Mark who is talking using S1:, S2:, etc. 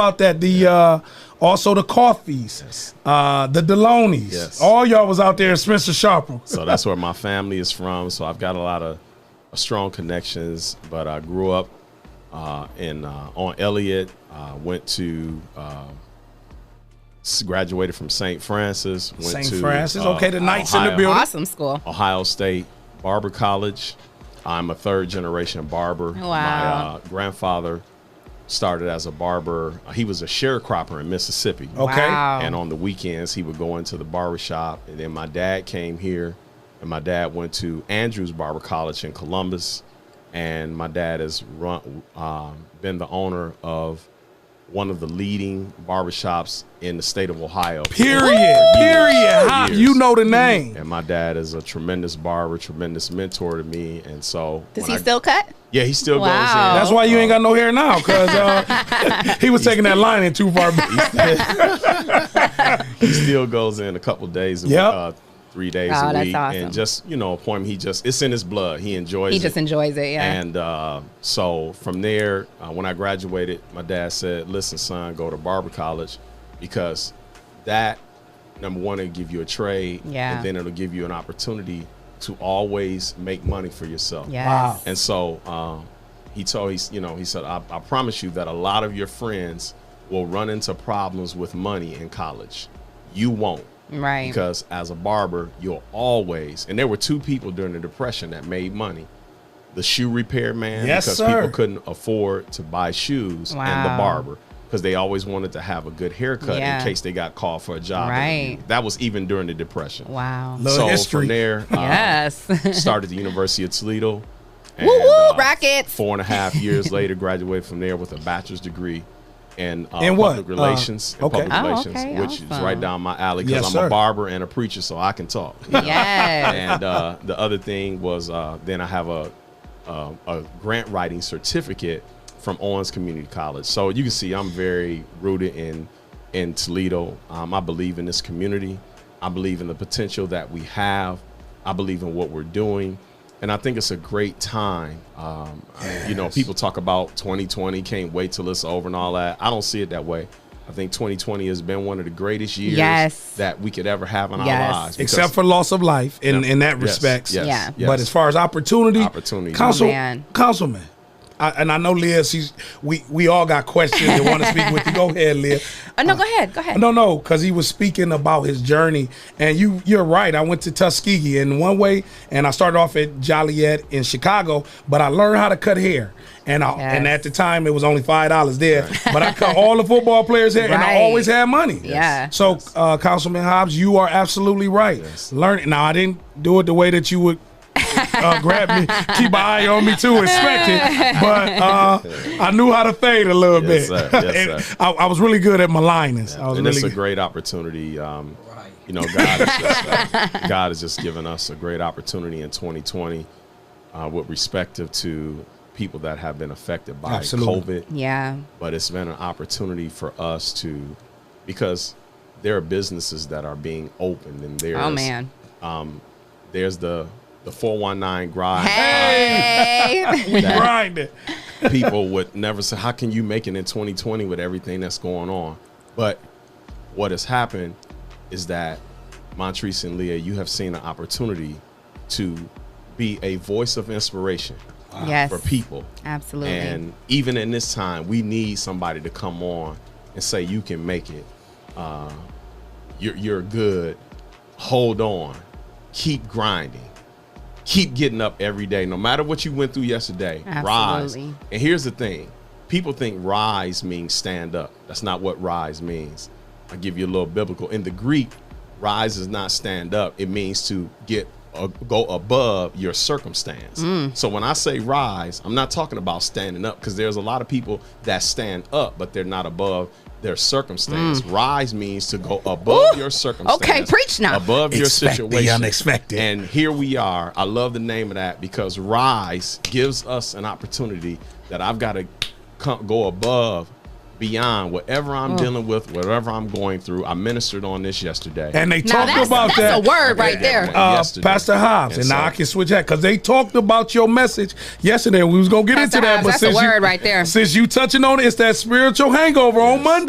S1: about that. The uh, also the coffees, uh, the Delonys.
S2: Yes.
S1: All y'all was out there in Spencer Sharper.
S2: So that's where my family is from. So I've got a lot of uh, strong connections. But I grew up uh, in uh, on Elliott. Uh, went to uh, s- graduated from St. Francis. Went
S1: St.
S2: to,
S1: Francis.
S2: uh,
S1: okay, the Knights in the
S2: Ohio-
S1: building.
S3: Awesome school.
S2: Ohio State Barber College. I'm a third generation barber.
S3: Wow.
S2: My uh, grandfather started as a barber. He was a sharecropper in Mississippi.
S1: Okay.
S3: Wow.
S2: And on the weekends, he would go into the barber shop. And then my dad came here, and my dad went to Andrews Barber College in Columbus. And my dad has run, um, been the owner of one of the leading barbershops in the state of Ohio.
S1: Period.
S2: For years,
S1: Period.
S2: for
S1: How-
S2: years.
S1: you know the name.
S2: And my dad is a tremendous barber, tremendous mentor to me. And so,
S3: Does
S2: when
S3: he
S2: I-
S3: still cut?
S2: Yeah, he still
S3: Wow.
S2: goes
S1: That's why you ain't got no hair now, because uh, he was taking that line in too far. back.
S2: in. He still goes in a couple days. a week,
S1: Yep.
S2: Uh, Three days
S3: Oh,
S2: a
S3: that's
S2: week,
S3: awesome.
S2: and just you know, appointment. He just—it's in his blood. He enjoys.
S3: He
S2: it.
S3: just enjoys it. Yeah.
S2: And uh, so from there, uh, when I graduated, my dad said, "Listen, son, go to barber college because that number one it'll give you a trade,
S3: Yeah.
S2: and then it'll give you an opportunity to always make money for yourself."
S3: yes.
S1: Wow.
S2: And so um, he told he's you know he said I, I promise you that a lot of your friends will run into problems with money in college. You won't.
S3: Right.
S2: Because as a barber, you'll always and there were two people during the depression that made money. The shoe repair man
S1: Yes,
S2: because
S1: sir.
S2: people couldn't afford to buy shoes and
S3: Wow.
S2: the barber because they always wanted to have a good haircut
S3: Yeah.
S2: in case they got called for a job.
S3: Right.
S2: interview. That was even during the depression.
S3: Wow.
S1: Love
S2: so
S1: history.
S2: from there, um,
S3: yes.
S2: started the University of Toledo. and,
S3: Woo woo,
S2: uh,
S3: Rockets.
S2: Four and a half years later, graduated from there with a bachelor's degree in, uh,
S1: In what?
S2: public relations.
S1: Uh,
S2: in
S1: okay.
S2: public
S3: Oh,
S2: relations,
S3: okay,
S2: which is
S3: awesome.
S2: right down my alley because
S1: Yes,
S2: I'm
S1: sir.
S2: a barber and a preacher, so I can talk.
S3: yes.
S2: and uh, the other thing was uh, then I have a, a a grant writing certificate from Owens Community College. So you can see I'm very rooted in in Toledo. Um, I believe in this community. I believe in the potential that we have. I believe in what we're doing. And I think it's a great time. Um, I- You know, people talk about 2020, can't wait till it's over and all that. I don't see it that way. I think 2020 has been one of the greatest years
S3: Yes.
S2: that we could ever have in
S3: Yes.
S2: our lives. because-
S1: Except for loss of life in, in that
S2: Yes,
S1: respect.
S2: yes,
S3: Yeah.
S2: yes.
S1: But as far as opportunity,
S2: Opportunity.
S1: council,
S3: Oh, man.
S1: councilman, I, and I know Liz. She's we we all got questions and want to speak with you. Go ahead, Liz.
S3: oh, no, go ahead. Go ahead.
S1: No, no, because he was speaking about his journey, and you you're right. I went to Tuskegee in one way, and I started off at Joliet in Chicago, but I learned how to cut hair. And I, and
S3: Yes.
S1: at the time it was only five dollars there, but I cut all the football players' hair, and I
S3: Right.
S1: always had money.
S3: Yeah.
S1: So, uh, Councilman Hobbs, you are absolutely right. Learn now. I didn't do it the way that you would uh, grab me, keep an eye on me too, inspect it. But uh, I knew how to fade a little
S2: Yes,
S1: bit.
S2: sir. Yes,
S1: And
S2: sir.
S1: I, I was really good at my linings. I was
S2: and
S1: really
S2: it's a
S1: good.
S2: great opportunity. Um, You know, God is just, uh, God has just given us a great opportunity in 2020 uh, with respective to people that have been affected by
S1: Absolutely.
S2: COVID.
S3: Yeah.
S2: But it's been an opportunity for us to, because there are businesses that are being opened and there's,
S3: Oh man.
S2: there's the, the 419 grind.
S3: Hey.
S2: that
S1: grinding.
S2: people would never say, "How can you make it in 2020 with everything that's going on?" But what has happened is that Montrese and Leah, you have seen an opportunity to be a voice of inspiration
S3: yes.
S2: for people.
S3: Absolutely.
S2: And even in this time, we need somebody to come on and say, "You can make it. Uh, you're you're good. Hold on. Keep grinding." Keep getting up every day, no matter what you went through yesterday. Rise.
S3: Absolutely.
S2: And here's the thing people think rise means stand up. That's not what rise means. I'll give you a little biblical. In the Greek, rise is not stand up, it means to get. uh go above your circumstance.
S3: Mm.
S2: So when I say rise, I'm not talking about standing up because there's a lot of people that stand up, but they're not above their circumstance. Rise means to go above
S3: Mm. Ooh.
S2: your circumstance.
S3: preach now.
S2: Above your
S1: Expect the
S2: situation.
S1: unexpected.
S2: And here we are. I love the name of that because Rise gives us an opportunity that I've got to come, go above beyond whatever
S3: Oh.
S2: I'm dealing with, whatever I'm going through. I ministered on this yesterday.
S1: And they
S3: Now
S1: talked
S3: that's,
S1: about that.
S3: that's a word right there.
S1: uh,
S2: yesterday.
S1: Pastor Hobbs, and,
S2: And
S1: now
S2: so-
S1: I can switch that because they talked about your message yesterday. We was gonna get
S3: Pastor
S1: into that,
S3: Hobbs,
S1: but
S3: that's a
S1: since you,
S3: word right there.
S1: Since you touching on it, it's that spiritual hangover on Monday.